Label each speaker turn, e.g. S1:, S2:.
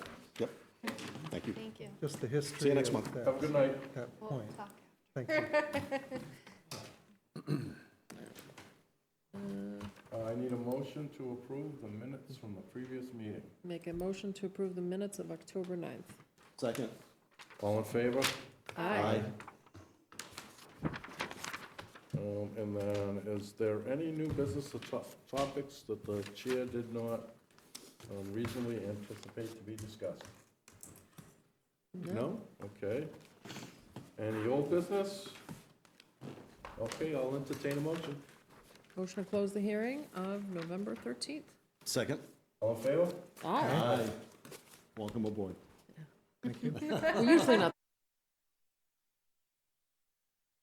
S1: Thank you.
S2: Thank you.
S3: just the history.
S1: See you next
S3: of
S1: month.
S3: that-
S4: Have a good night.
S3: That
S2: We'll
S3: point,
S2: talk.
S3: thank you.
S4: Uh, I need a motion to approve the minutes from the previous meeting.
S5: Make a motion to approve the minutes of October 9th.
S1: Second.
S4: All in favor?
S5: Aye.
S4: Um, And then, is there any new business or to- topics that the chair did not um, reasonably anticipate to be discussed? No? Okay. Any old business? Okay, I'll entertain a motion.
S5: Motion to close the hearing of November 13th.
S1: Second.
S4: All in favor?
S5: Aye.
S1: Welcome aboard.
S3: Thank you.
S5: We're usually not